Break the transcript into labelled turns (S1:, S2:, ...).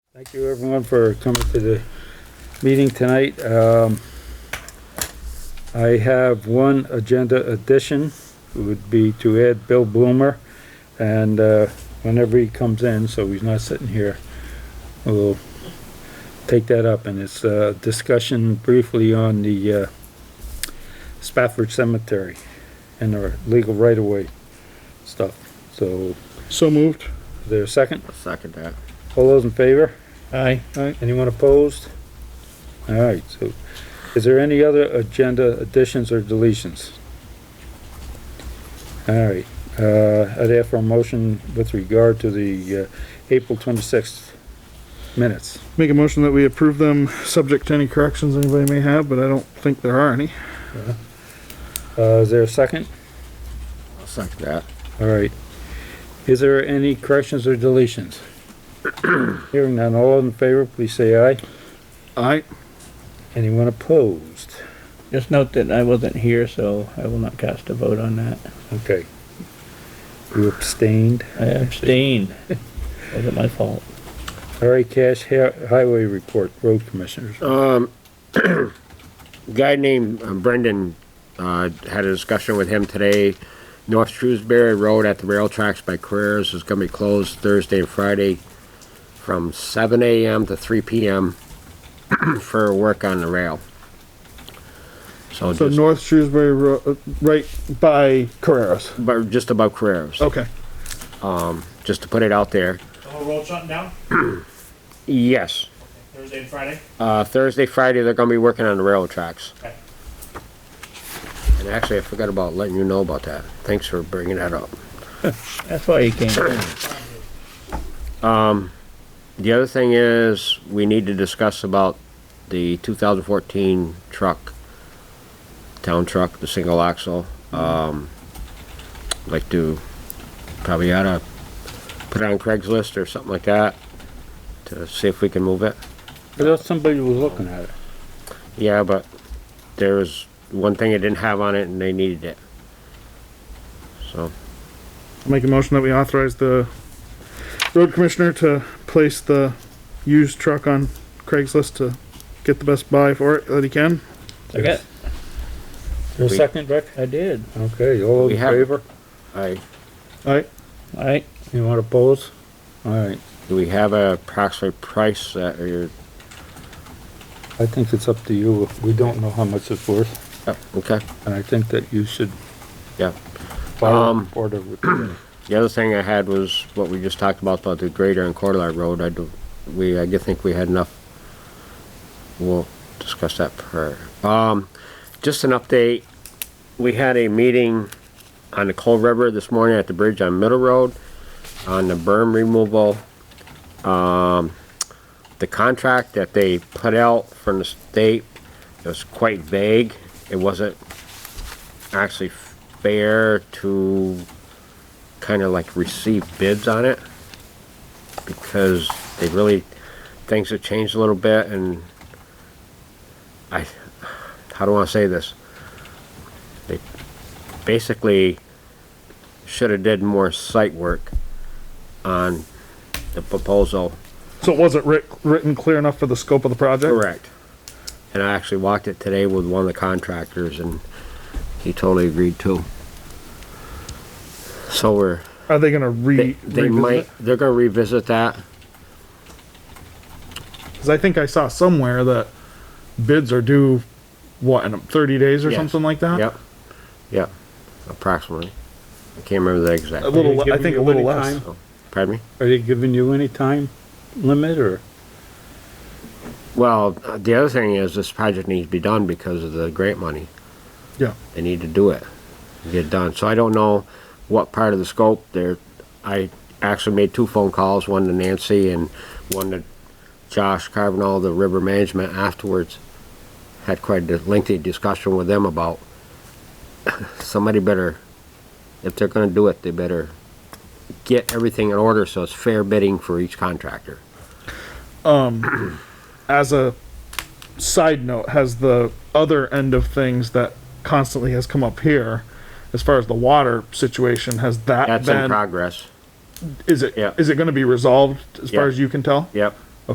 S1: Thank you everyone for coming to the meeting tonight. Um, I have one agenda addition, It would be to add Bill Bloomer. And, uh, whenever he comes in, so he's not sitting here, we'll take that up. And it's a discussion briefly on the, uh, Spafford Cemetery and our legal right-of-way stuff. So,
S2: So moved.
S1: is there a second?
S3: I'll second that.
S1: All those in favor?
S2: Aye.
S1: Anyone opposed? All right, so is there any other agenda additions or deletions? All right, uh, I'd ask for a motion with regard to the, uh, April twenty-sixth minutes.
S2: Make a motion that we approve them, subject to any corrections anybody may have, but I don't think there are any.
S1: Uh, is there a second?
S3: I'll second that.
S1: All right. Is there any corrections or deletions? Hearing none, all in favor, please say aye.
S2: Aye.
S1: Anyone opposed?
S4: Just note that I wasn't here, so I will not cast a vote on that.
S1: Okay. You abstained?
S4: I abstained. Wasn't my fault.
S1: All right, Cash, hi- highway report, road commissioners.
S3: Oh. Guy named uh, Brendan, uh, had a discussion with him today. North Shrewsbury Road at the rail tracks by Careers is gonna be closed Thursday and Friday from seven AM to three PM for work on the rail. So
S2: So
S3: just,
S2: North Shrewsbury, Ro- uh, right by Carreras.
S3: but just about Careers,
S2: Okay.
S3: just to put it out there.
S5: The whole road shutting down
S3: Yes,
S5: Thursday and Friday?
S3: uh, Thursday, Friday, they're gonna be working on the rail tracks.
S5: Okay.
S3: And actually, I forgot about letting you know about that. Thanks for bringing that up.
S4: That's why you came.
S3: The other thing is, we need to discuss about the 2014 truck, town truck, the single axle. Um, like to, probably oughta put it on Craigslist or something like that to see if we can move it.
S1: I thought somebody was looking at it.
S3: Yeah, but there was one thing it didn't have on it and they needed it. So,
S2: Make a motion that we authorize the road commissioner to place the used truck on Craigslist to get the best buy for it that he can.
S4: I got,
S1: Your second, Rick?
S4: I did.
S1: Okay, all
S3: We
S1: in
S3: have-
S1: favor?
S3: I,
S2: Aye.
S4: Alright,
S1: You want to pose? All right,
S3: do we have a approximate price that you're,
S1: I think it's up to you. We don't know how much it's worth,
S3: oh, okay,
S1: and I think that you should
S3: yeah.
S1: file a
S3: Um,
S1: report of it.
S3: The other thing I had was what we just talked about, about the grader and Cordelar Road, I do, we, I do think we had enough. We'll discuss that per, um, just an update, we had a meeting on the Cold River this morning at the bridge on Middle Road, on the berm removal. Um, the contract that they put out from the state was quite vague, it wasn't actually fair to kind of like receive bids on it because they really things have changed a little bit and I how do I say this? They basically should have did more site work on the proposal.
S2: So it wasn't writ- written clear enough for the scope of the project?
S3: Correct. And I actually walked it today with one of the contractors and he totally agreed too. So we're
S2: Are they gonna re?
S3: they, they
S2: revisit
S3: might
S2: it?
S3: they're gonna revisit that.
S2: Cause I think I saw somewhere that bids are due, what, in thirty days or
S3: Yes.
S2: something like that?
S3: Yep, yep, approximately. I can't remember the
S2: A
S3: exact,
S2: little,
S1: Are you
S2: le- I think
S1: giving
S2: a little
S1: you any
S2: less.
S1: time?
S3: pardon me?
S1: Are they giving you any time limit, or?
S3: Well, uh, the other thing is this project needs to be done because of the grant money.
S2: Yeah.
S3: They need to do it, and get it done. So I don't know what part of the scope there, I actually made two phone calls, one to Nancy and one to Josh Carbonall, the river management afterwards. Had quite a lengthy discussion with them about somebody better, if they're gonna do it, they better get everything in order so it's fair bidding for each contractor.
S2: As a side note, has the other end of things that constantly has come up here, as far as the water situation, has that
S3: That's in
S2: been,
S3: progress.
S2: is it,
S3: yeah.
S2: is it gonna be resolved as far
S3: Yeah.
S2: as you can tell?
S3: Yep,